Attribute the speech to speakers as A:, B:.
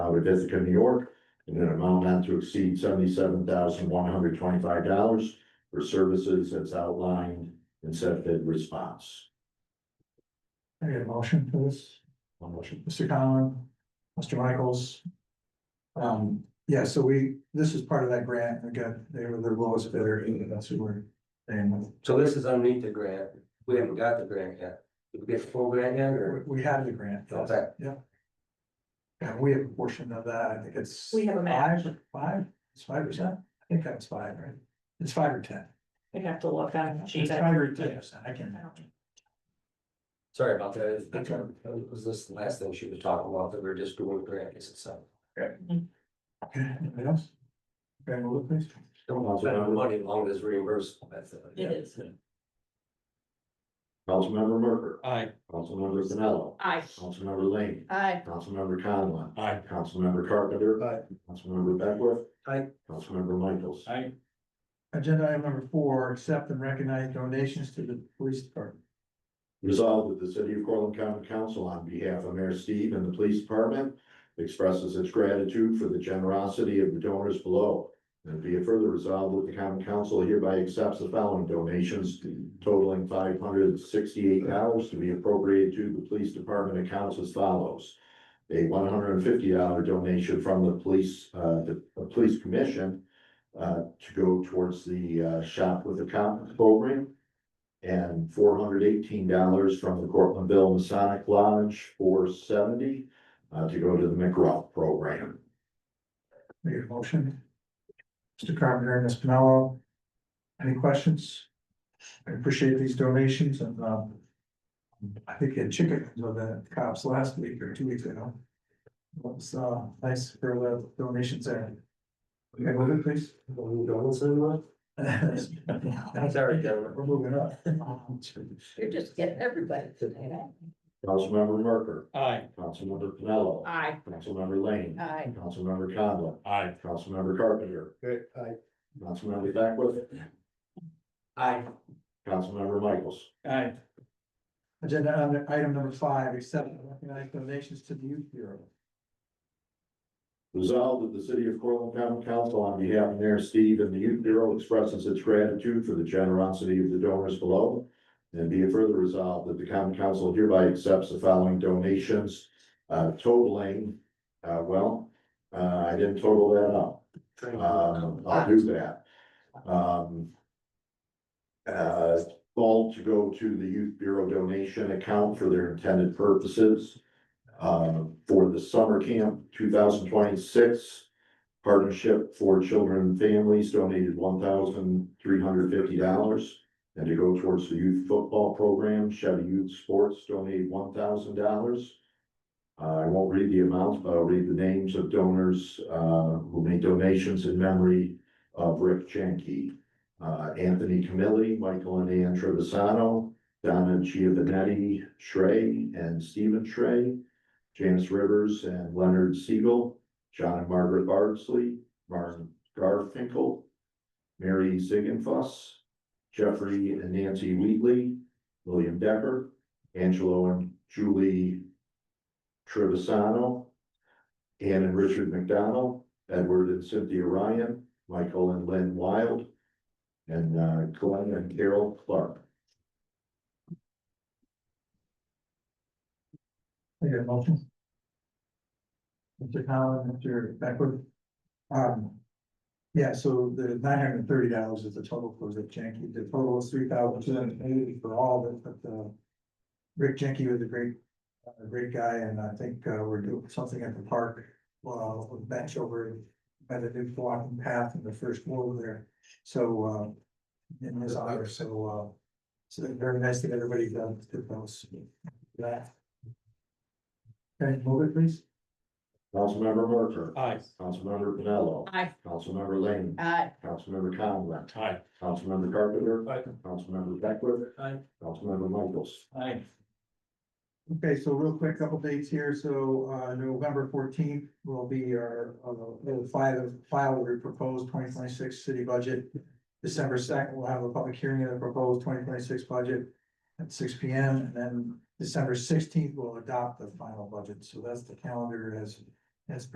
A: out of Ithaca, New York, in an amount not to exceed seventy-seven thousand one hundred twenty-five dollars for services as outlined in said bid response.
B: I get a motion for this,
A: One motion.
B: Mr. Conlon, Mr. Michaels. Um, yeah, so we, this is part of that grant, we got, they were the lowest bidder, that's who we're. And
C: So this is underneath the grant, we haven't got the grant yet, did we get the full grant yet, or?
B: we had the grant. yes,
C: Okay.
B: Yeah. And we have a portion of that, Oh, I think it's.
D: We have a match.
B: Five, or- five, it's five percent, I think that's five, right? It's five or ten.
D: I have to look at.
B: It's five or ten, percent, I can.
C: Sorry about that,
B: That's all right.
C: That was this the last thing she was talking about, that we are just doing grants itself.
B: Okay, anybody else? Grab a look, please.
C: Don't want to spend our money long as reimbursable, that's. uh,
D: It is.
A: Councilmember Merker,
E: Aye.
A: Councilmember Pinello,
D: Aye.
A: Councilmember Lane,
D: Aye.
A: Councilmember Conlon.
E: Aye.
A: Councilmember Carpenter. Councilmember Beckwith.
C: Aye.
A: Councilmember Michaels.
E: Aye.
B: Agenda item number four, accept and recognize donations to the police department.
A: Resolved that the City of Corlent County Council, on behalf of Mayor Steve and the Police Department, expresses its gratitude for the generosity of the donors below. And be it further resolved that the Common Council hereby accepts the following donations totaling five hundred and sixty-eight dollars to be appropriated to the Police Department accounts as follows. A one hundred and fifty dollar donation from the Police, uh, the the Police Commission uh, to go towards the uh, Shop with a Cop program and four hundred eighteen dollars from the Cortlandville Masonic Lodge, four seventy, uh, to go to the McRoth program.
B: Make a motion. Mr. Carpenter and Ms. Pinello. Any questions? I appreciate these donations and, um. I think you had chickens with the cops last week or two weeks ago. It was, uh, nice for the donations there. Okay, move it, please.
C: Well, no one's in one?
B: That's
C: Sorry, gentlemen.
B: We're moving up. Um,
D: You're just getting everybody tonight.
A: Councilmember Merker,
E: Aye.
A: Councilmember Pinello.
D: Aye.
A: Councilmember Lane.
D: Aye.
A: Councilmember Conlon.
E: Aye.
A: Councilmember Carpenter.
C: Good, aye.
A: Councilmember Beckwith.
C: Aye.
A: Councilmember Michaels.
E: Aye.
B: Agenda item- item number five, accept and recognize donations to the youth bureau.
A: Resolved that the city of Corlent County Council on behalf of Mayor Steve and the Youth Bureau expresses its gratitude for the generosity of the donors below. And be it further resolved that the common council hereby accepts the following donations uh, totaling, uh, well, uh, I didn't total that up. Um, I'll do that. Um. Uh, all to go to the Youth Bureau donation account for their intended purposes. Uh, for the summer camp two thousand twenty-six. Partnership for Children and Families donated one thousand three hundred fifty dollars. And to go towards the youth football program, Chevy Youth Sports donated one thousand dollars. Uh, I won't read the amounts, but I'll read the names of donors, uh, who made donations in memory of Rick Jenke. Uh, Anthony Camilli, Michael and Ann Trevisano, Donna Giovanetti Shrey and Stephen Shrey, James Rivers and Leonard Siegel, John and Margaret Bardsley, Martin Garfinkel, Mary Zieggenfuss, Jeffrey and Nancy Wheatley, William Decker, Angelo and Julie Trevisano, Ann and Richard McDonald, Edward and Cynthia Ryan, Michael and Lynn Wild, and uh, Glenn and Carol Clark.
B: I get a motion. Mr. Collin, Mr. Beckwith. Um. Yeah, so the nine hundred and thirty dollars is the total for Rick Jenke. The total is three thousand two hundred and eighty for all of it, but uh Rick Jenke was a great, a great guy, and I think uh we're doing something at the park. Well, with bench over by the new walking path in the first floor there. So uh in his honor, so uh. So very nice that everybody done did those. That. Okay, move it please.
A: Councilmember Merker,
E: Aye.
A: Councilmember Pinello,
D: Aye.
A: Councilmember Lane,
D: Aye.
A: Councilmember Conlon,
E: Aye.
A: Councilmember Carpenter,
E: Aye.
A: Councilmember Beckwith,
E: Aye.
A: Councilmember Michaels.
E: Aye.
B: Okay, so real quick, couple dates here. So uh November fourteenth will be our uh we'll file file with the proposed twenty twenty six city budget. December second, we'll have a public hearing of the proposed twenty twenty six budget at six P M. And then December sixteenth, we'll adopt the final budget. So that's the calendar as as